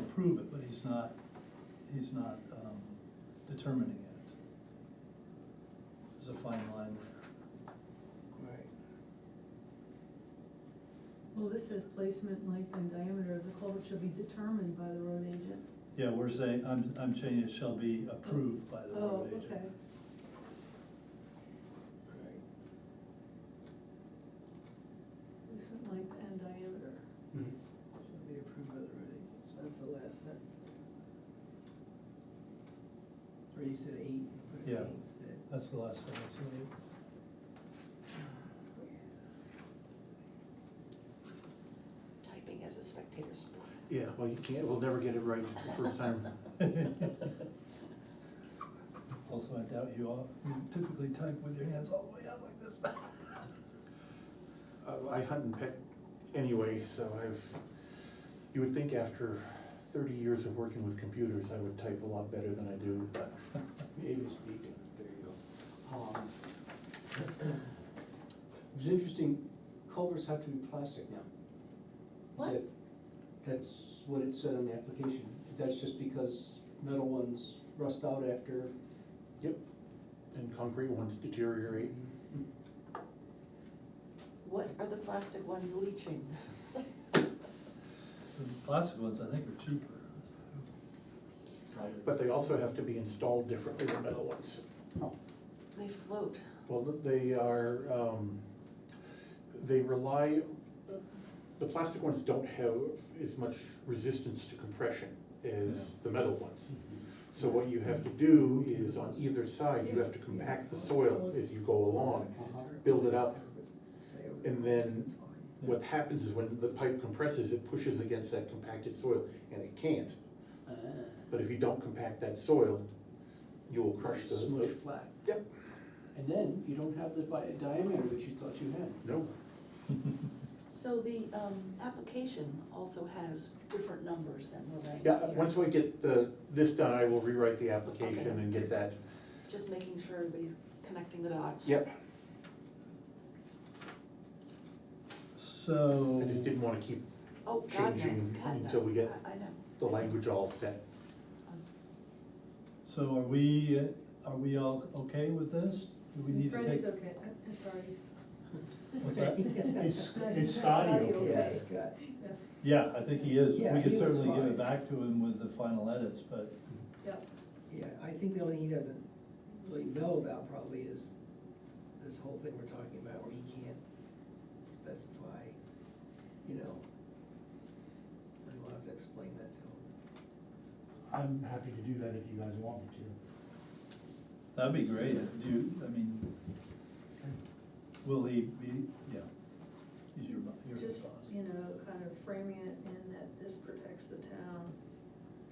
approve it, but he's not, he's not um, determining it. There's a fine line there. Right. Well, this says placement, length, and diameter of the culvert shall be determined by the road agent. Yeah, we're saying, I'm, I'm changing, it shall be approved by the Oh, road agent. okay. Right. Placement, length, and diameter. Shall be approved by the road agent, So that's the last sentence. Or you said eight, put Yeah. eight instead. That's the last thing, that's it. Typing as a spectator sport. Yeah, well, you can't, we'll never get it right the first time. Also, I doubt you all you typically type with your hands all the way out like this. Uh, I hunt and peck anyway, so I've, you would think after thirty years of working with computers, I would type a lot better than I do, but Native speaking, there you go. Um, It was interesting, culverts have to be plastic now. What? Is it- That's what it said on the application, that's just because metal ones rust out after, yep. And concrete ones deteriorate. What are the plastic ones leaching? The plastic ones, I think, are cheaper. But they also have to be installed differently than metal ones. They float. Well, they are, um, they rely, the plastic ones don't have as much resistance to compression as the metal ones. So what you have to do is on either side, you have to compact the soil as you go along. Uh-huh. build it up, and then What happens is when the pipe compresses, it pushes against that compacted soil, and it can't. uh, But if you don't compact that soil, you will crush the. smush flat. Yep, And then you don't have the di- diameter that you thought you had. no, So the, um, application also has different numbers than we're writing yeah, uh, here. once we get the, this done, I will rewrite the application Okay. and get that, Just making sure everybody's connecting the dots. yep. So. I just didn't wanna keep Oh, God, no, Changing God, no. until we get- I I know. the language all set. I was- So are we, uh, are we all okay with this? Do we need to Fred take? is okay, I'm I'm sorry. What's that? Is- Fred is Scotty Yeah, Scott, Yeah, Yeah, I think he is. Yeah, We he could was certainly give fine. it back to him with the final edits, but, yeah. yeah, I think the only thing he doesn't really know about probably is this whole thing we're talking about where he can't specify, you know. I don't have to explain that to him. I'm happy to do that if you guys want me that'd be great. Do, you- I mean, to. will he be, yeah, he's your, mo- your Just, boss. you know, kind of framing it in that this protects the town,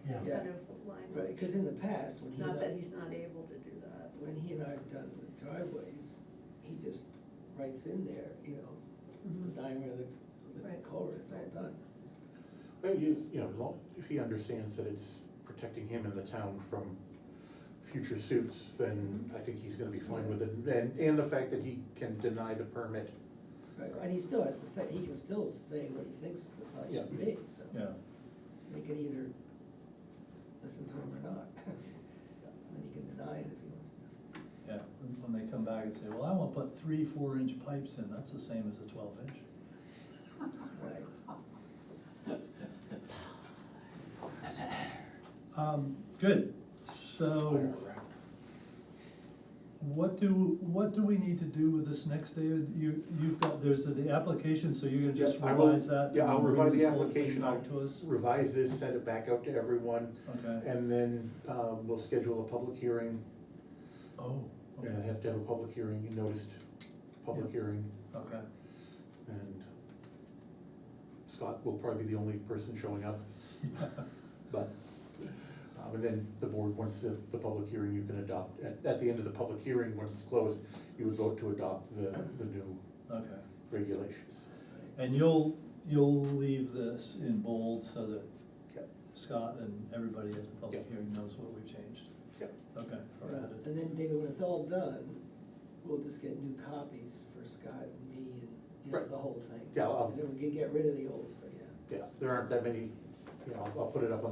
Yeah. Yeah, kind of Right, language. because in the past, when he and Not that I- he's not able to do that. when he and I have done the driveways, he just writes in there, you know, Mhm. the diameter of the, the Right. culvert, it's all done. But he is, you know, as long- if he understands that it's protecting him and the town from future suits, then I think he's gonna be fine with it. And, and the fact that he can deny the permit. Right, and he still has to say, he can still say what he thinks the size Yeah. should be, so. Yeah, They can either listen to him or not, and then he can deny it if he wants to. yeah. When- When they come back and say, well, I want to put three four-inch pipes in, that's the same as a twelve-inch. Right, Um, good. So what do, what do we need to do with this next, David? You, you've got, there's the application, so you're gonna just Yeah, I will- revise that? Yeah, and I'll bring revise the this whole thing application, I'll Back to us? revise this, send it back out to everyone, Okay. and then, um, we'll schedule a public hearing. Oh, And I okay, have to have a public hearing, you noticed, public Yeah. hearing, okay. and Scott will probably be the only person showing up, but, um, and then the board, once the, the public hearing, you can adopt, at, at the end of the public hearing, once it's closed, you would vote to adopt the, the new Okay. regulations. And you'll, you'll leave this in bold so that Yep. Scott and everybody at the public Yep. hearing knows what we've changed. Yep. Okay. All right. and then David, when it's all done, we'll just get new copies for Scott and me and, you know, Right. the whole thing. Yeah, I'll- And then we can get rid of the old, so, yeah. Yeah, there aren't that many, you know, I'll- I'll put it up on